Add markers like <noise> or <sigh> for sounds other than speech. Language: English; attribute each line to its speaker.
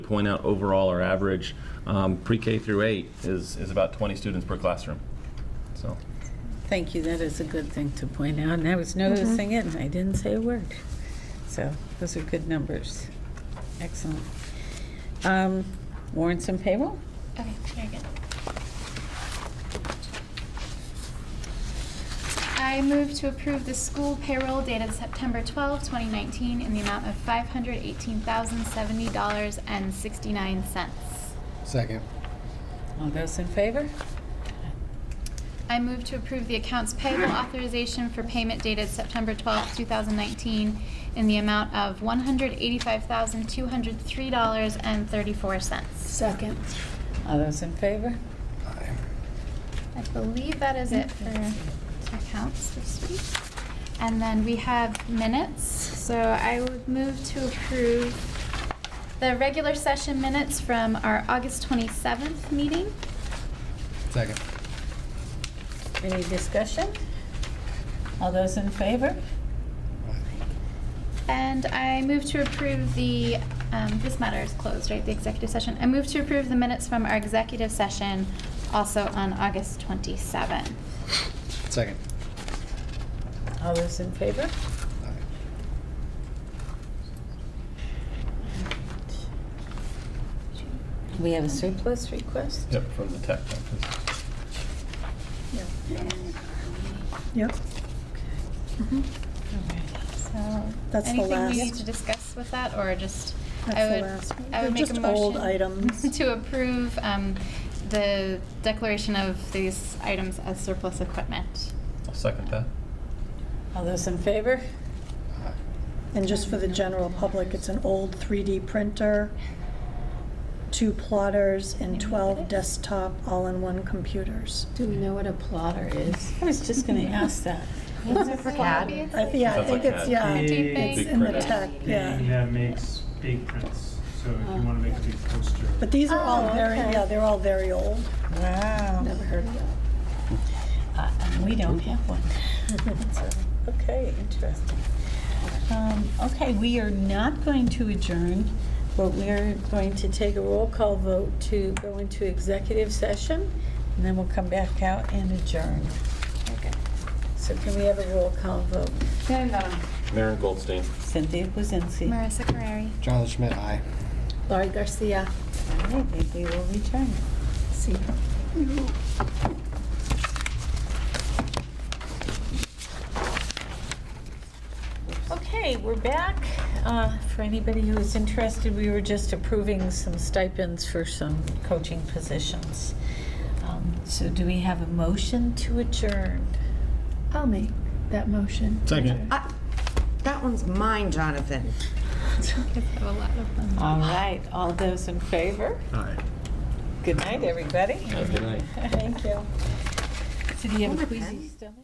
Speaker 1: point out overall, our average um, pre-K through eight is, is about 20 students per classroom. So,
Speaker 2: Thank you, that is a good thing to point out, and I was noticing
Speaker 3: Mm-hmm.
Speaker 2: it, and I didn't say a word. So, those are good numbers. Excellent. Um, Warrants and payroll?
Speaker 4: Okay, very good. I move to approve the school payroll dated September 12, 2019, in the amount of $518,070.69.
Speaker 5: Second.
Speaker 2: All those in favor?
Speaker 4: I move to approve the accounts payable authorization for payment dated September 12, 2019, in the amount of $185,203.34.
Speaker 6: Second.
Speaker 2: All those in favor?
Speaker 5: Aye.
Speaker 4: I believe that is it for accounts this week. And then we have minutes, so I would move to approve the regular session minutes from our August 27th meeting.
Speaker 5: Second.
Speaker 2: Any discussion? All those in favor?
Speaker 4: And I move to approve the, um, this matter is closed, right, the executive session. I move to approve the minutes from our executive session also on August 27th.
Speaker 5: Second.
Speaker 2: All those in favor?
Speaker 5: Aye.
Speaker 2: We have a surplus request?
Speaker 1: yep, from the tech office.
Speaker 6: Yep.
Speaker 4: So,
Speaker 6: That's the
Speaker 4: anything we
Speaker 6: last-
Speaker 4: need to discuss with that, or just?
Speaker 6: That's
Speaker 4: I
Speaker 6: the
Speaker 4: would,
Speaker 6: last one.
Speaker 4: I
Speaker 6: They're
Speaker 4: would make a
Speaker 6: just old
Speaker 4: motion <laughs>
Speaker 6: items.
Speaker 4: to approve um, the declaration of these items as surplus equipment.
Speaker 1: I'll second that.
Speaker 2: All those in favor?
Speaker 5: Aye.
Speaker 6: And just for the general public, it's an old 3D printer, two plotters, and 12 desktop all-in-one computers.
Speaker 3: Do we know what a plotter is?
Speaker 2: I was just going to ask that.
Speaker 6: I- Yeah, I
Speaker 1: Sounds
Speaker 6: think
Speaker 1: like
Speaker 6: it's,
Speaker 1: that.
Speaker 6: yeah,
Speaker 4: do
Speaker 7: Big-
Speaker 4: things.
Speaker 6: it's
Speaker 1: Big
Speaker 6: in the
Speaker 1: print.
Speaker 6: tech,
Speaker 7: Thing
Speaker 6: yeah. Uh-huh.
Speaker 7: that makes big prints, so if you want to make a big poster.
Speaker 6: But these are all
Speaker 3: Oh,
Speaker 6: very,
Speaker 3: okay.
Speaker 6: yeah, they're all very old.
Speaker 2: Wow.
Speaker 3: Never heard of that.
Speaker 2: Uh, and we don't have
Speaker 3: <laughs>
Speaker 2: one. So, Okay, interesting. Um, Okay, we are not going to adjourn, but we are going to take a roll call vote to go into executive session, and then we'll come back out and adjourn. Okay. So can we have a roll call vote?
Speaker 1: Maren Goldstein.
Speaker 2: Cynthia Kuzinski. All
Speaker 4: Marissa Carreri.
Speaker 5: Jonathan Schmidt, aye.
Speaker 3: Laurie Garcia.
Speaker 2: right, maybe we'll return.
Speaker 3: See.
Speaker 2: Okay, we're back. Uh, For anybody who is interested, we were just approving some stipends for some coaching positions. Um, So do we have a motion to adjourn?
Speaker 6: I'll make that motion.
Speaker 1: Second.
Speaker 8: That one's mine, Jonathan.
Speaker 4: have a lot of them.
Speaker 2: All right, all those in favor?
Speaker 5: Aye.
Speaker 2: Good night, everybody. <laughs>
Speaker 1: Good night.
Speaker 2: Thank you. So do you have a queasy stomach?